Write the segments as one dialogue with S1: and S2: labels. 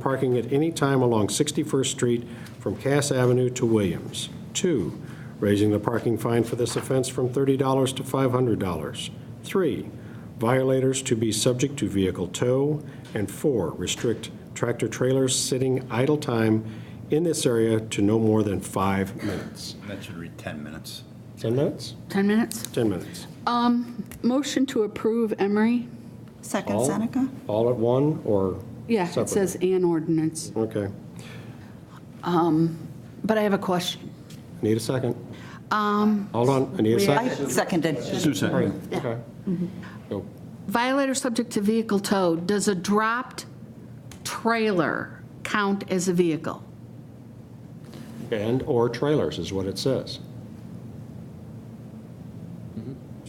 S1: parking at any time along 61st Street from Cass Avenue to Williams. Two, raising the parking fine for this offense from $30 to $500. Three, violators to be subject to vehicle tow. And four, restrict tractor-trailers sitting idle time in this area to no more than five minutes.
S2: That should read 10 minutes.
S1: 10 minutes?
S3: 10 minutes?
S1: 10 minutes.
S3: Motion to approve Emery?
S4: Second
S1: All-
S4: Seneca?
S1: All at one, or?
S3: Yeah, it says an ordinance.
S1: Okay.
S3: But I have a question.
S1: Need a second? Hold on, I need a
S4: I
S1: second.
S4: seconded.
S2: Sue seconded.
S1: Okay. Go.
S3: Violator subject to vehicle tow, does a dropped trailer count as a vehicle?
S1: And/or trailers is what it says.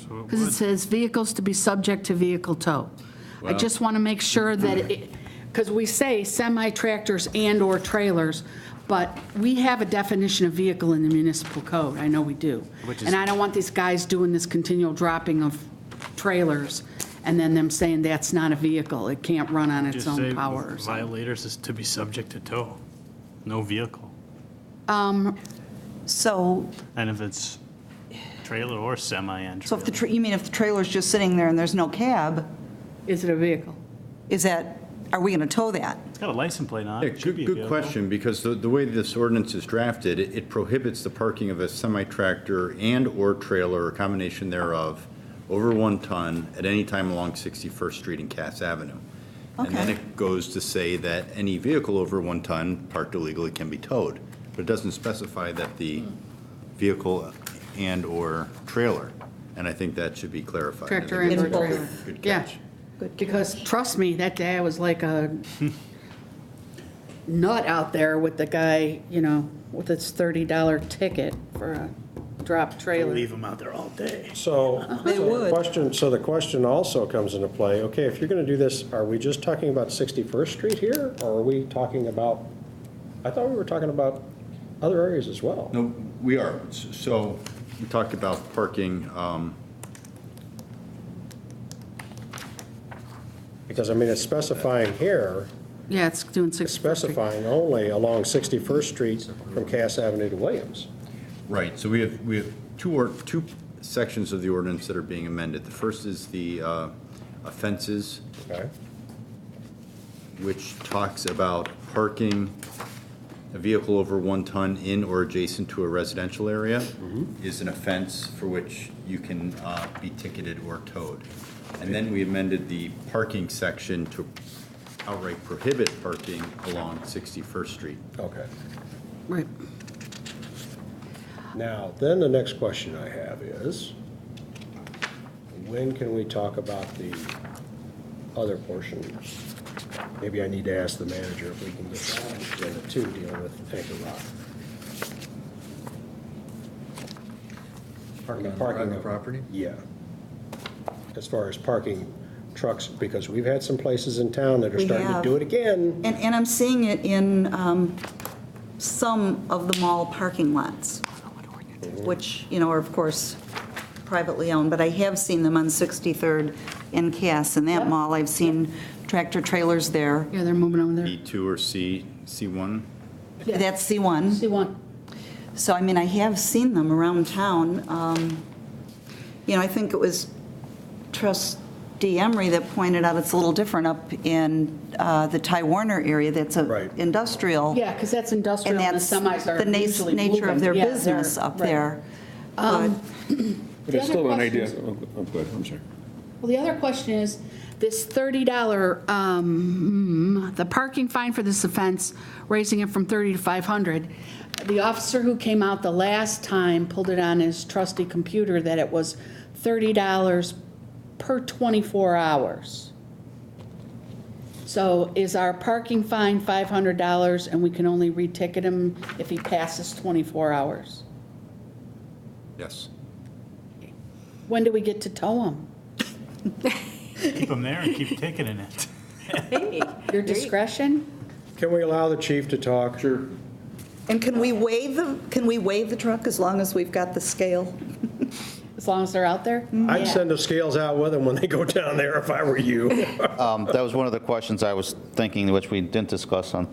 S3: Because it says vehicles to be subject to vehicle tow. I just want to make sure that it, because we say semi-tractors and/or trailers, but we have a definition of vehicle in the municipal code, I know we do. And I don't want these guys doing this continual dropping of trailers and then them saying that's not a vehicle, it can't run on its
S5: Just say
S3: own power. or something.
S5: Violators is to be subject to tow, no vehicle.
S4: So,
S5: And if it's trailer or semi and
S4: so if the,
S5: trailer.
S4: tra- you mean if the trailer's just sitting there and there's no cab,
S3: Is it a vehicle?
S4: is that, are we going to tow that?
S5: It's got a license plate on
S2: Yeah,
S5: it, it should
S2: good,
S5: be a
S2: good
S5: vehicle.
S2: question, because the, the way this ordinance is drafted, it it prohibits the parking of a semi-tractor and/or trailer or combination thereof over one ton at any time along 61st Street and Cass Avenue. And then
S4: Okay.
S2: it goes to say that any vehicle over one ton parked illegally can be towed, but it doesn't specify that the vehicle and/or trailer. And I think that should be clarified. I think
S3: Tractor and
S2: that's a
S3: or
S2: good-
S3: trailer.
S2: Good
S3: Yeah.
S2: catch.
S3: Because trust me, that day I was like a nut out there with the guy, you know, with his $30 ticket for a drop trailer.
S5: them out there all day.
S1: So,
S4: Uh-huh. They
S1: so the
S4: would.
S1: question, so the question also comes into play, okay, if you're going to do this, are we just talking about 61st Street here? Or are we talking about, I thought we were talking about other areas as well.
S2: No, we are. S- So we talked about parking, um,
S1: Because, I mean, it's specifying here,
S3: Yeah, it's doing six.
S1: specifying only along 61st Street from Cass Avenue to Williams.
S2: right, so we have, we have two or, two sections of the ordinance that are being amended. The first is the uh, offenses,
S1: Okay.
S2: which talks about parking a vehicle over one ton in or adjacent to a residential area is an offense for which you can uh, be ticketed or towed. And then we amended the parking section to outright prohibit parking along 61st Street.
S1: Okay.
S3: Right.
S1: Now, then the next question I have is, when can we talk about the other portion? Maybe I need to ask the manager if we can get that on agenda two, dealing with Anchor Rock. Parking, parking. of-
S2: property?
S1: Yeah. As far as parking trucks, because we've had some places in town that are
S4: We
S1: starting to
S4: have.
S1: do it again.
S4: And, and I'm seeing it in um, some of the mall parking lots, which, you know, are of course privately owned, but I have seen them on 63rd and Cass, in that mall, I've seen tractor trailers there.
S3: Yeah, they're moving over there.
S2: B2 or C, C1?
S4: That's C1.
S3: See one.
S4: So, I mean, I have seen them around town. Um, You know, I think it was trustee Emery that pointed out it's a little different up in uh, the Ty Warner area that's
S1: Right.
S4: a industrial.
S3: Yeah, because that's industrial
S4: And
S3: and the
S4: that's
S3: semis are
S4: the nas-
S3: usually moving.
S4: nature of their
S3: Yeah, they're-
S4: business up
S3: right.
S4: there. But
S6: But it's
S3: The
S6: still
S3: other
S6: an idea.
S3: questions-
S6: Oh, oh, go ahead, I'm sorry.
S3: Well, the other question is, this $30, um, the parking fine for this offense, raising it from 30 to 500. The officer who came out the last time pulled it on his trusty computer that it was $30 per 24 hours. So is our parking fine $500 and we can only reticket him if he passes 24 hours?
S2: Yes.
S3: When do we get to tow him?
S5: Keep them there and keep ticketing it.
S3: Your discretion?
S1: Can we allow the chief to talk? Sure.
S4: And can we waive the, can we waive the truck as long as we've got the scale?
S3: as long as they're out there?
S1: I'd send the scales out with them when they go down there if I were you.
S7: Um, That was one of the questions I was thinking, which we didn't discuss on